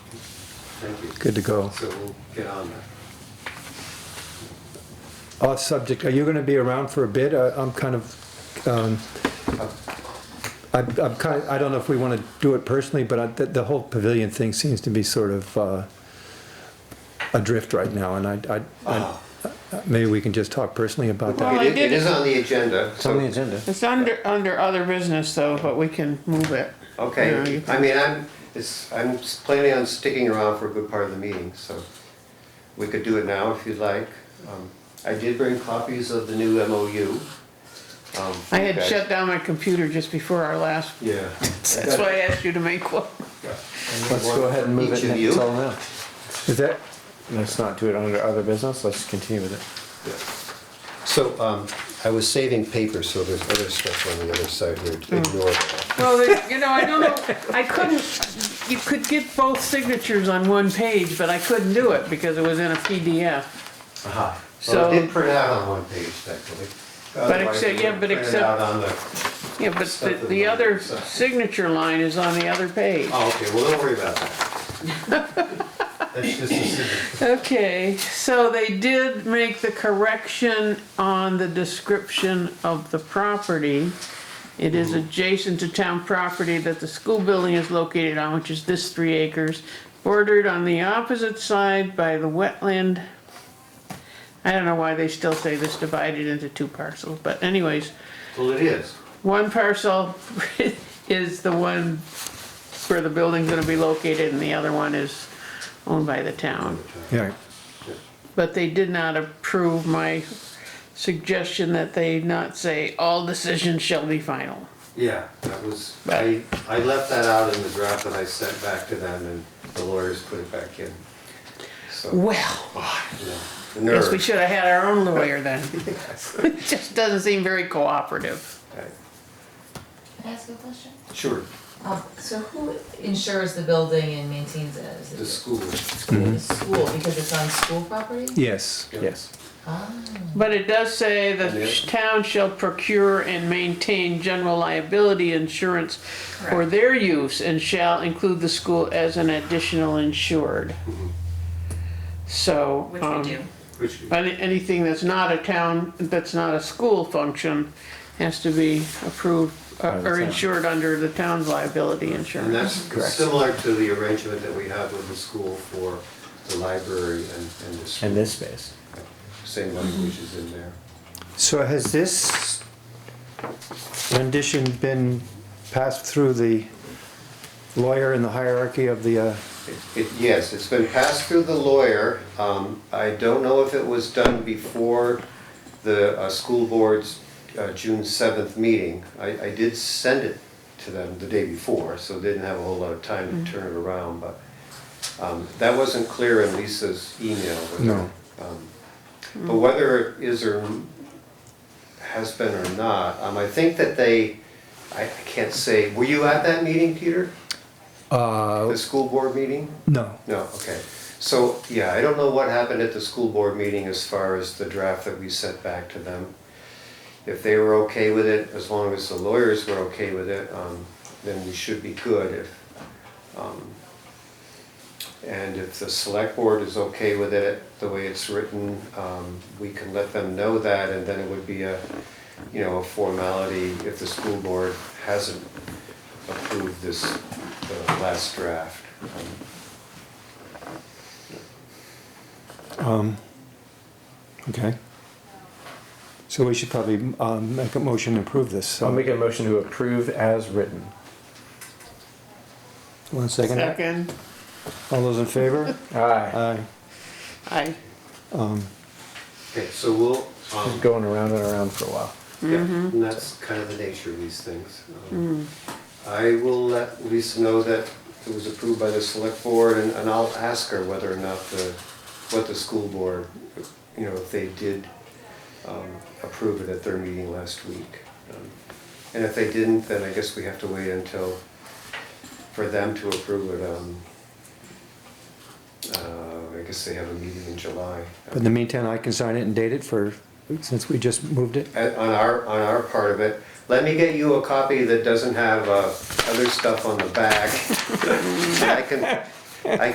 Thank you. Good to go. So we'll get on that. Off subject, are you gonna be around for a bit? I- I'm kind of, um, I'm, I'm kind, I don't know if we wanna do it personally, but I, the, the whole pavilion thing seems to be sort of, uh, adrift right now, and I, I, I- maybe we can just talk personally about that. Well, I Ah. It is- it did- is on the agenda. It's on the agenda. It's under, under other business though, but we can move it. You know, you Okay, can- I mean, I'm, it's, I'm s- planning on sticking around for a good part of the meeting, so we could do it now if you'd like. Um, I did bring copies of the new MOU. um, I had okay. shut down my computer just before our last, Yeah. that's why I asked you to make one. Let's go ahead and move Each it of and you. it's all now. Is that, Let's not do it under other business, let's continue with it. Yeah. So um, I was saving paper, so there's other stuff on the other side here Hmm. to ignore. that. Well, they- you know, I don't know, I couldn't, you could get both signatures on one page, but I couldn't do it because it was in a PDF. Uh-huh. Well, it So- did print out on one page, actually. Otherwise, except- it yeah, would but print except- out on the- Yeah, but the, the other signature line is on the other page. Oh, okay, well, don't worry about that. That's just a signature. Okay, so they did make the correction on the description of the property. It is adjacent to town property that the school building is located on, which is this three acres, bordered on the opposite side by the wetland. I don't know why they still say this divided into two parcels, but anyways, Well, it is. one parcel is the one where the building's gonna be located and the other one is owned by the town. yeah, But they did not approve my suggestion that they not say all decisions shall be final. Yeah, that was, I, I left that out in the draft that I sent back to them and the lawyers put it back in. So, Well, you know, the guess we nerve. should have had our own lawyer then. It just doesn't seem very cooperative. Okay. Can I ask a question? Sure, Um, so who insures the building and maintains it? Is it the school. The school, because it's on school property? yes. Yes. Ah, But it does say the Yeah. town shall procure and maintain general liability insurance for Correct. their use and shall include the school as an additional insured. So. which we um, do. Which, Any, anything that's not a town, that's not a school function, has to be approved uh, the or town. insured under the town's liability and insurance. that's similar to the arrangement that we have with the school for the library and, and the In school. this space. Same language is in there. So has this rendition been passed through the lawyer in the hierarchy of the, uh, It, yes, it's been passed through the lawyer. Um, I don't know if it was done before the, uh, school board's, uh, June seventh meeting. I, I did send it to them the day before, so they didn't have a whole lot of time to turn it around, but, um, that wasn't clear in Lisa's email. whether- No. um, But whether it is or has been or not, um, I think that they, I, I can't say, were you at that meeting, Peter? Uh, The school board meeting? no, No, okay. So, yeah, I don't know what happened at the school board meeting as far as the draft that we sent back to them. If they were okay with it, as long as the lawyers were okay with it, um, then we should be good if, um, and if the select board is okay with it, the way it's written, um, we can let them know that and then it would be a, you know, a formality if the school board hasn't approved this, the last draft. Um, um, okay. So we should probably, um, make a motion to approve this, so. I'll make a motion to approve as written. One second. Second, All those in favor? Aye. Aye. I, Um, Okay, so we'll, um, Just going around and around for a while. yeah, and that's kind of the nature of these things. Um, I will let Lisa know that it was approved by the select board, and, and I'll ask her whether or not the, what the school board, you know, if they did, um, approve it at their meeting last week. Um, And if they didn't, then I guess we have to wait until, for them to approve it, um, uh, I guess they have a meeting in July. But in the meantime, I can sign it and date it for, since we just moved it. at- on our, on our part of it. Let me get you a copy that doesn't have uh, other stuff on the back. I can, I